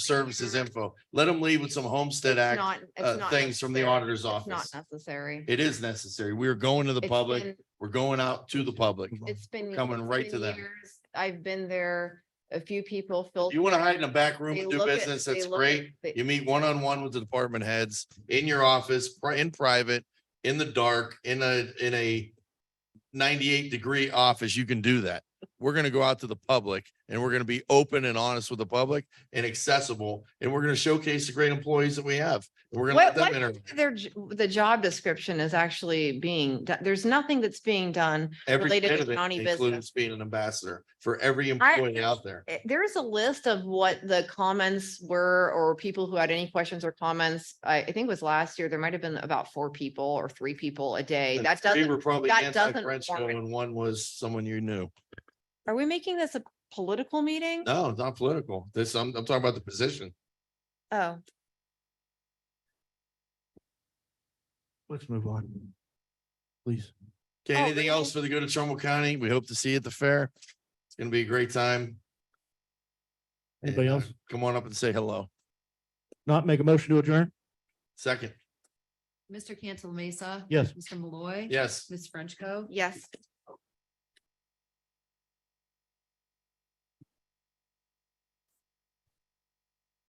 services info. Let them leave with some Homestead It's Act not- it's uh, not things from the necessary. auditor's It's Not office. necessary. It is necessary. We're going to the It's public. been- We're going out to the public. It's been. coming it's right been to them. years. I've been there, a few people filled. You want to hide in a back room They and do look at- business, they that's look at- great. they- You meet one-on-one with the department heads in your office, pri- in private, in the dark, in a, in a ninety-eight degree office, you can do that. We're going to go out to the public and we're going to be open and honest with the public and accessible. And we're going to showcase the great employees that we have. And We're going to let What, them what, enter their, j- the job description is actually being, do- there's nothing that's being done. every related to bit of it, county business. including being an ambassador for every I- employee out there. Eh, There is a list of what the comments were or people who had any questions or comments. I, I think it was last year, there might have been about four people or three people a day. And That three doesn't, Were probably that doesn't anti-Frenchco warrant- and one was someone you knew. are we making this a political meeting? No, it's not political. This, I'm, I'm talking about the position. Oh, Let's move on. Please. Okay, Oh, anything really? else for the good of Trumbull County? We hope to see you at the fair. It's gonna be a great time. And, Anybody uh, else? Come on up and say hello. Not make a motion to adjourn? Second, Mr. Cancel Mesa. Yes. Mr. Malloy. yes. Ms. Frenchco. yes.